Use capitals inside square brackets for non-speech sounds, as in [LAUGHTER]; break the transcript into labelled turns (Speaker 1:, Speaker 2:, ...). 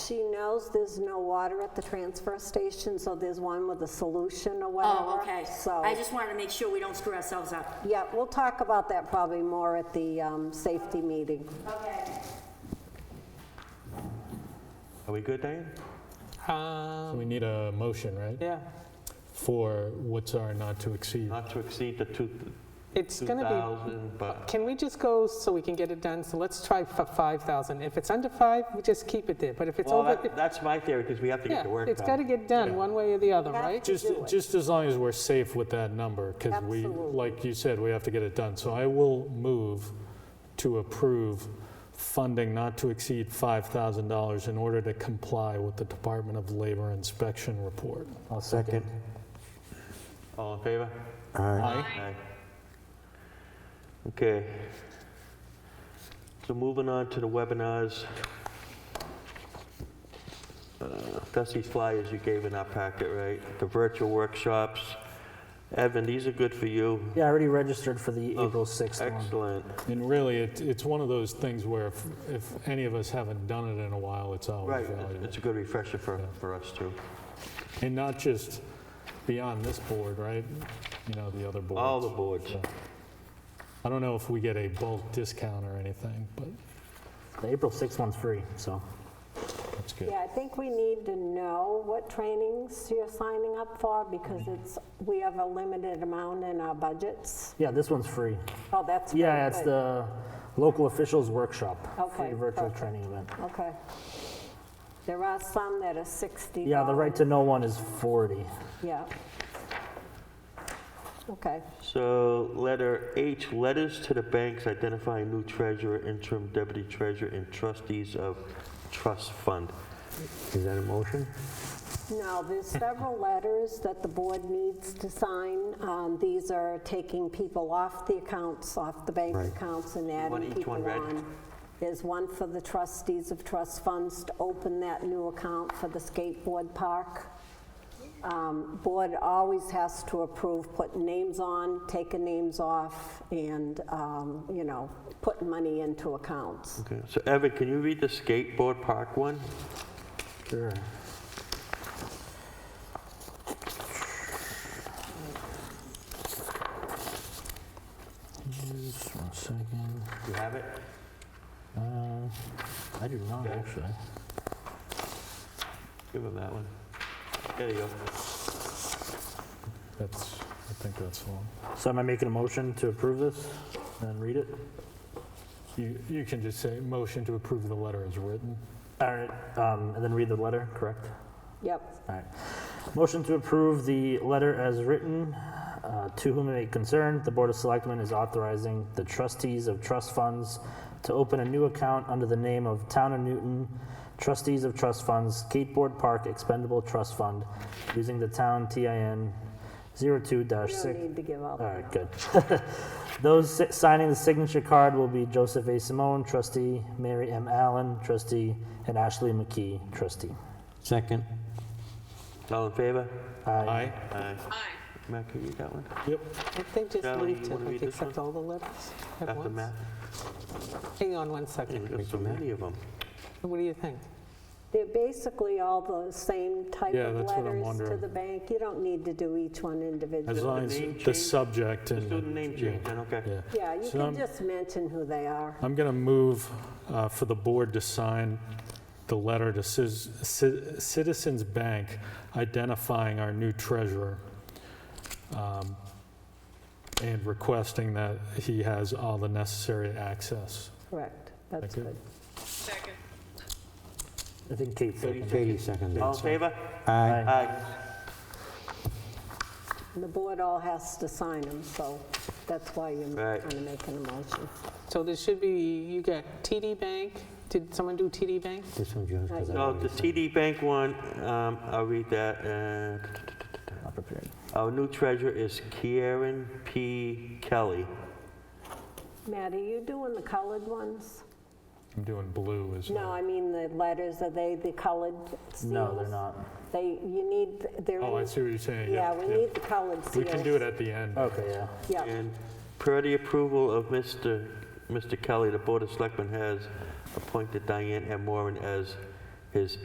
Speaker 1: she knows there's no water at the transfer station, so there's one with a solution or whatever.
Speaker 2: Oh, okay.
Speaker 1: So,
Speaker 2: I just wanted to make sure we don't screw ourselves up.
Speaker 1: yeah, we'll talk about that probably more at the um, safety meeting.
Speaker 3: Are we good, Diane?
Speaker 4: So we need a motion, right?
Speaker 5: Yeah,
Speaker 4: For what's our not to exceed.
Speaker 3: Not to exceed the two,
Speaker 5: it's gonna
Speaker 3: 2,000,
Speaker 5: be,
Speaker 3: but
Speaker 5: can we just go so we can get it done? So let's try for 5,000. If it's under 5, we just keep it there, but if it's
Speaker 3: Well,
Speaker 5: over,
Speaker 3: that- that's my theory, because we have to
Speaker 5: yeah,
Speaker 3: get to work.
Speaker 5: it's
Speaker 3: on
Speaker 5: gotta
Speaker 3: it.
Speaker 5: get done, one way or the other,
Speaker 1: Have
Speaker 5: right?
Speaker 1: to
Speaker 4: Just,
Speaker 1: do it.
Speaker 4: just as long as we're safe with that number, because we,
Speaker 1: Absolutely.
Speaker 4: like you said, we have to get it done. So I will move to approve funding not to exceed $5,000 in order to comply with the Department of Labor inspection report.
Speaker 6: I'll second.
Speaker 3: All in favor?
Speaker 6: Aye.
Speaker 3: Aye. Okay. So moving on to the webinars. Uh, That's these flyers you gave in our packet, right? The virtual workshops. Evan, these are good for you.
Speaker 6: Yeah, I already registered for the April 6th one.
Speaker 3: Excellent.
Speaker 4: And really, it, it's one of those things where if, if any of us haven't done it in a while, it's always
Speaker 3: Right,
Speaker 4: valuable.
Speaker 3: it's a good refresher for, for us too.
Speaker 4: And not just beyond this board, right? You know, the other boards.
Speaker 3: All the boards.
Speaker 4: I don't know if we get a bulk discount or anything, but
Speaker 6: The April 6th one's free, so.
Speaker 4: that's good.
Speaker 1: Yeah, I think we need to know what trainings you're signing up for because
Speaker 6: Mm-hmm.
Speaker 1: it's, we have a limited amount in our budgets.
Speaker 6: Yeah, this one's free.
Speaker 1: Oh, that's. very
Speaker 6: Yeah, it's
Speaker 1: good.
Speaker 6: the local officials workshop.
Speaker 1: Okay,
Speaker 6: Free virtual
Speaker 1: perfect.
Speaker 6: training event.
Speaker 1: Okay. There are some that are 60.
Speaker 6: Yeah, the right to know one is 40.
Speaker 1: Yeah. Okay.
Speaker 3: So letter H, letters to the banks identifying new treasurer, interim deputy treasurer, and trustees of trust fund. Is that a motion?
Speaker 1: Now, there's several letters that the board needs to sign. Um, These are taking people off the accounts, off the bank
Speaker 3: Right.
Speaker 1: accounts and
Speaker 3: want
Speaker 1: adding
Speaker 3: each
Speaker 1: people
Speaker 3: one read?
Speaker 1: on. There's one for the trustees of trust funds to open that new account for the skateboard park. Um, Board always has to approve putting names on, taking names off, and, um, you know, putting money into accounts.
Speaker 3: Okay, so Evan, can you read the skateboard park one?
Speaker 6: Sure. Just one second.
Speaker 3: You have it?
Speaker 6: Uh, I do not
Speaker 3: Okay.
Speaker 6: actually.
Speaker 3: Give him that one. There you go.
Speaker 4: That's, I think that's all.
Speaker 6: So am I making a motion to approve this and read it?
Speaker 4: You, you can just say, motion to approve the letter as written.
Speaker 6: All right, um, and then read the letter, correct?
Speaker 1: Yep.
Speaker 6: All right. Motion to approve the letter as written. uh, To whom it may concern, the Board of Selectmen is authorizing the trustees of trust funds to open a new account under the name of Town of Newton Trustees of Trust Funds Skateboard Park Expendable Trust Fund using the town TIN 02-6.
Speaker 1: You don't need to give up.
Speaker 6: All right, good. [LAUGHS] Those si- signing the signature card will be Joseph A. Simone, trustee, Mary M. Allen, trustee, and Ashley McKee, trustee.
Speaker 3: Second. All in favor?
Speaker 6: Aye.
Speaker 3: Aye. Matt, can you read that one?
Speaker 4: Yep.
Speaker 5: I think just
Speaker 3: Charlie,
Speaker 5: leave
Speaker 3: you
Speaker 5: to,
Speaker 3: wanna read
Speaker 5: like,
Speaker 3: this one?
Speaker 5: accept all the letters at
Speaker 3: After
Speaker 5: once.
Speaker 3: Matt?
Speaker 5: Hang on one second.
Speaker 3: There's so many of them.
Speaker 5: What do you think?
Speaker 1: They're basically all the same type
Speaker 4: Yeah,
Speaker 1: of
Speaker 4: that's what I'm
Speaker 1: letters to
Speaker 4: wondering.
Speaker 1: the bank. You don't need to do each one
Speaker 4: As
Speaker 1: individually.
Speaker 4: long as
Speaker 3: name
Speaker 4: the
Speaker 3: change?
Speaker 4: subject and.
Speaker 3: Just do the name
Speaker 4: yeah,
Speaker 3: change, then, okay.
Speaker 4: Yeah.
Speaker 1: Yeah, you
Speaker 4: So
Speaker 1: can
Speaker 4: I'm-
Speaker 1: just mention who they are.
Speaker 4: I'm going to move uh, for the board to sign the letter to Cis- Ci- Citizens Bank identifying our new treasurer um, and requesting that he has all the necessary access.
Speaker 1: Correct. That's
Speaker 4: Thank you.
Speaker 1: good.
Speaker 6: I think Kate seconded.
Speaker 7: Katie seconded.
Speaker 3: All in favor?
Speaker 7: Aye.
Speaker 3: Aye.
Speaker 1: And the board all has to sign them, so that's why you're
Speaker 3: Right.
Speaker 1: kind of making a motion.
Speaker 5: So there should be, you got TD Bank, did someone do TD Bank?
Speaker 7: This one's yours 'cause I
Speaker 3: No,
Speaker 7: already
Speaker 3: the TD Bank one, um, I'll read that. uh,
Speaker 6: Not prepared.
Speaker 3: Our new treasurer is Kieran P. Kelly.
Speaker 1: Matt, are you doing the colored ones?
Speaker 4: I'm doing blue as
Speaker 1: No, I mean the letters, are they the colored seals?
Speaker 6: No, they're not.
Speaker 1: They, you need, they're.
Speaker 4: Oh, I
Speaker 1: in-
Speaker 4: see what you're saying.
Speaker 1: Yeah, we need the colored seals.
Speaker 4: We can do it at the end.
Speaker 6: Okay, yeah.
Speaker 1: Yeah,
Speaker 3: And per the approval of Mr. Mr. Kelly, the Board of Selectmen has appointed Diane M. Warren as his